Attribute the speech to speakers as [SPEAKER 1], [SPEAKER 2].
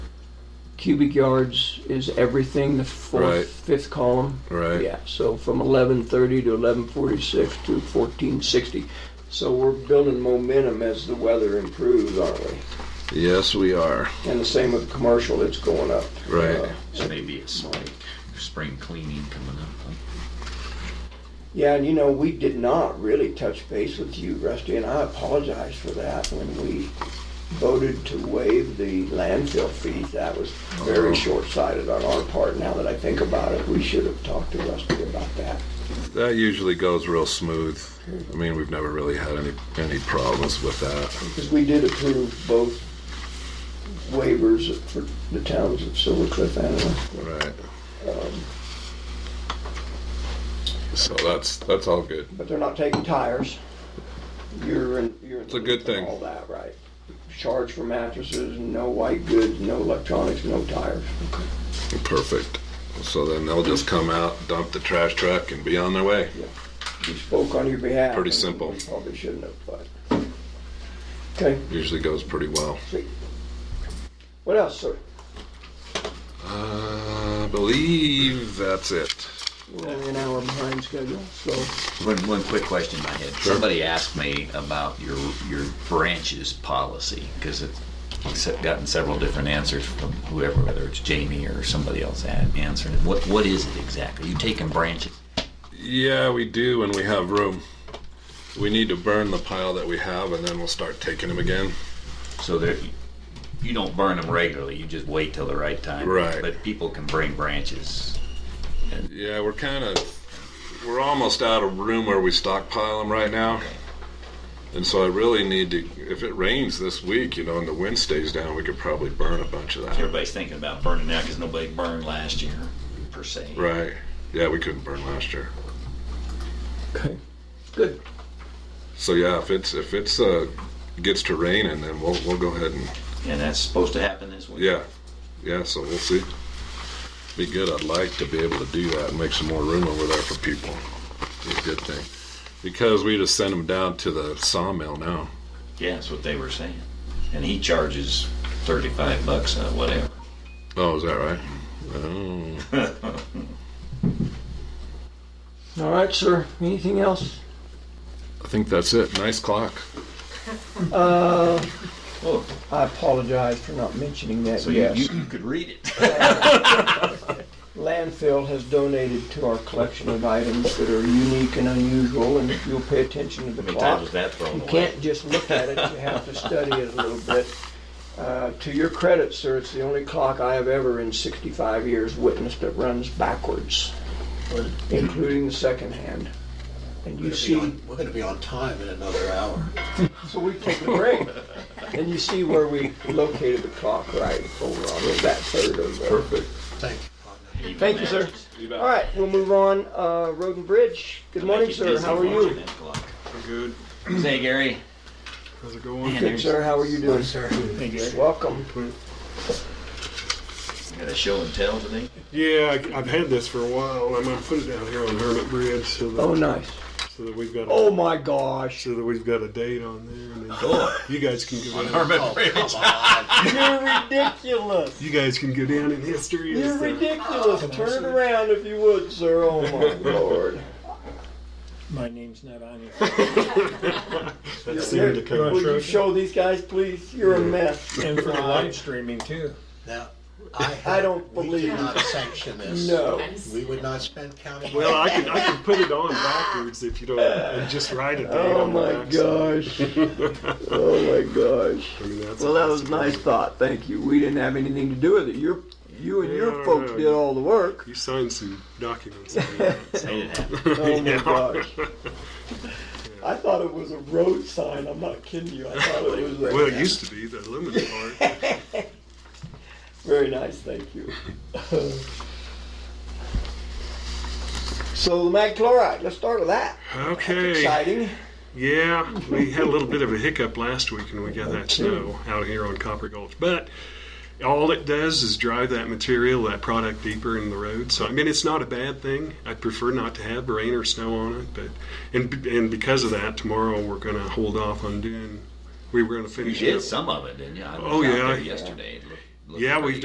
[SPEAKER 1] cubic yards is everything, the
[SPEAKER 2] Right.
[SPEAKER 1] fourth, fifth column.
[SPEAKER 2] Right.
[SPEAKER 1] Yeah, so from eleven thirty to eleven forty-six to fourteen sixty. So we're building momentum as the weather improves, aren't we?
[SPEAKER 2] Yes, we are.
[SPEAKER 1] And the same with commercial, it's going up.
[SPEAKER 2] Right.
[SPEAKER 1] Uh,
[SPEAKER 3] So maybe it's like spring cleaning coming up.
[SPEAKER 1] Yeah, and you know, we did not really touch base with you, Rusty, and I apologize for that when we voted to waive the landfill fee. That was very
[SPEAKER 2] Oh.
[SPEAKER 1] short-sighted on our part. Now that I think about it, we should have talked to Rusty about that.
[SPEAKER 2] That usually goes real smooth. I mean, we've never really had any any problems with that.
[SPEAKER 1] Because we did approve both waivers for the towns of Silver Cliff and, uh,
[SPEAKER 2] Right.
[SPEAKER 1] um,
[SPEAKER 2] So that's that's all good.
[SPEAKER 1] but they're not taking tires. You're in, you're in.
[SPEAKER 2] It's a good thing.
[SPEAKER 1] All that, right. Charge for mattresses, no white goods, no electronics, no tires.
[SPEAKER 2] Perfect. So then they'll just come out, dump the trash truck, and be on their way.
[SPEAKER 1] We spoke on your behalf.
[SPEAKER 2] Pretty simple.
[SPEAKER 1] We Probably shouldn't have, but. Okay,
[SPEAKER 2] Usually goes pretty well.
[SPEAKER 1] sweet. What else, sir?
[SPEAKER 2] Uh, I believe that's it.
[SPEAKER 1] We're only an hour behind schedule, so.
[SPEAKER 3] One, one quick question I had.
[SPEAKER 2] Sure.
[SPEAKER 3] Somebody asked me about your your branches policy because it's I've se- gotten several different answers from whoever, whether it's Jamie or somebody else a- answering it. What what is it exactly? You taking branches?
[SPEAKER 2] Yeah, we do when we have room. We need to burn the pile that we have, and then we'll start taking them again.
[SPEAKER 3] So there, you don't burn them regularly. You just wait till the right time.
[SPEAKER 2] Right.
[SPEAKER 3] But people can bring branches.
[SPEAKER 2] Yeah, we're kind of we're almost out of room where we stockpile them right now. And so I really need to. If it rains this week, you know, and the wind stays down, we could probably burn a bunch of that.
[SPEAKER 3] Everybody's thinking about burning now because nobody burned last year, per se.
[SPEAKER 2] Right? Yeah, we couldn't burn last year.
[SPEAKER 1] Okay. Good.
[SPEAKER 2] So yeah, if it's if it's uh gets to raining, then we'll we'll go ahead and
[SPEAKER 3] And that's supposed to happen this week.
[SPEAKER 2] yeah, yeah. So we'll see. Be good. I'd like to be able to do that and make some more room over there for people. Be a good thing because we just send them down to the sawmill now.
[SPEAKER 3] Yeah, that's what they were saying. And he charges thirty-five bucks, uh, whatever.
[SPEAKER 2] Oh, is that right? Oh.
[SPEAKER 1] All right, sir. Anything else?
[SPEAKER 2] I think that's it. Nice clock.
[SPEAKER 3] Oh,
[SPEAKER 1] I apologize for not mentioning that.
[SPEAKER 3] so
[SPEAKER 1] Yes.
[SPEAKER 3] you, you, you could read it.
[SPEAKER 1] Landfill has donated to our collection of items that are unique and unusual, and if you'll pay attention to the
[SPEAKER 3] How many
[SPEAKER 1] clock.
[SPEAKER 3] times was that thrown
[SPEAKER 1] You
[SPEAKER 3] away?
[SPEAKER 1] can't just look at it, you have to study it a little bit. Uh, To your credit, sir, it's the only clock I have ever in 65 years witnessed that runs backwards, including the second hand. And you
[SPEAKER 4] We're gonna be
[SPEAKER 1] see,
[SPEAKER 4] on- We're gonna be on time in another hour.
[SPEAKER 1] so we take a break, and you see where we located the clock right over on that third of the.
[SPEAKER 2] Perfect.
[SPEAKER 4] Thank you, partner.
[SPEAKER 1] Thank you, sir. All right, we'll move on. Uh, Road and Bridge, good morning,
[SPEAKER 3] Make it
[SPEAKER 1] sir,
[SPEAKER 3] dizzy
[SPEAKER 1] how are
[SPEAKER 3] watching
[SPEAKER 1] you?
[SPEAKER 3] that clock.
[SPEAKER 5] Good.
[SPEAKER 3] Say, Gary.
[SPEAKER 5] How's it going?
[SPEAKER 3] Man,
[SPEAKER 1] Good,
[SPEAKER 3] there's
[SPEAKER 1] sir,
[SPEAKER 3] I
[SPEAKER 1] how are you doing?
[SPEAKER 4] Sir,
[SPEAKER 1] Welcome.
[SPEAKER 3] got a show and tell today.
[SPEAKER 5] Yeah, I- I've had this for a while. I'm gonna put it down here on Hermit Bridge so that,
[SPEAKER 1] Oh, nice.
[SPEAKER 5] so that we've got a,
[SPEAKER 1] Oh, my gosh.
[SPEAKER 5] so that we've got a date on there, and then
[SPEAKER 3] Oh.
[SPEAKER 5] you guys can go down.
[SPEAKER 4] oh, come on.
[SPEAKER 1] You're ridiculous.
[SPEAKER 5] You guys can go down in history.
[SPEAKER 1] You're
[SPEAKER 5] as the-
[SPEAKER 1] ridiculous. Turn it around if you would, sir. Oh my lord.
[SPEAKER 6] My name's not on it.
[SPEAKER 5] That
[SPEAKER 1] Here,
[SPEAKER 5] seemed to
[SPEAKER 1] Will
[SPEAKER 5] come.
[SPEAKER 1] you show these guys, please? You're a mess.
[SPEAKER 6] And for the live streaming too.
[SPEAKER 4] Now, I,
[SPEAKER 1] I don't
[SPEAKER 4] We
[SPEAKER 1] believe
[SPEAKER 4] did not sanction this.
[SPEAKER 1] No.
[SPEAKER 4] We would not spend county.
[SPEAKER 5] Well, I can I can put it on backwards if you don't, and just write a date
[SPEAKER 1] Oh
[SPEAKER 5] on the
[SPEAKER 1] my
[SPEAKER 5] back
[SPEAKER 1] gosh. Oh my gosh.
[SPEAKER 5] I mean, that's,
[SPEAKER 1] Well, that was a nice thought. Thank you. We didn't have anything to do with it. Your, you and your
[SPEAKER 5] Yeah, I
[SPEAKER 1] folks
[SPEAKER 5] know.
[SPEAKER 1] did all the work.
[SPEAKER 5] you signed some documents. on that.
[SPEAKER 3] Made it happen.
[SPEAKER 1] Oh my gosh. I thought it was a road sign. I'm not kidding you. I thought it was a
[SPEAKER 5] well, it used to be the lemon part.
[SPEAKER 1] Very nice, thank you. so the mag chloride, let's start with that.
[SPEAKER 5] Okay.
[SPEAKER 1] Exciting.
[SPEAKER 5] Yeah, we had a little bit of a hiccup last week when we got that snow out here on Copper Gulch. But all it does is drive that material, that product deeper in the road. So, I mean, it's not a bad thing. I'd prefer not to have rain or snow on it. But, and, and because of that, tomorrow we're going to hold off on doing, we were going to
[SPEAKER 3] You
[SPEAKER 5] finish
[SPEAKER 3] did
[SPEAKER 5] up.
[SPEAKER 3] some of it, didn't you? I was
[SPEAKER 5] Oh,
[SPEAKER 3] out
[SPEAKER 5] yeah.
[SPEAKER 3] there yesterday. It looked- looked
[SPEAKER 5] Yeah, we
[SPEAKER 3] pretty.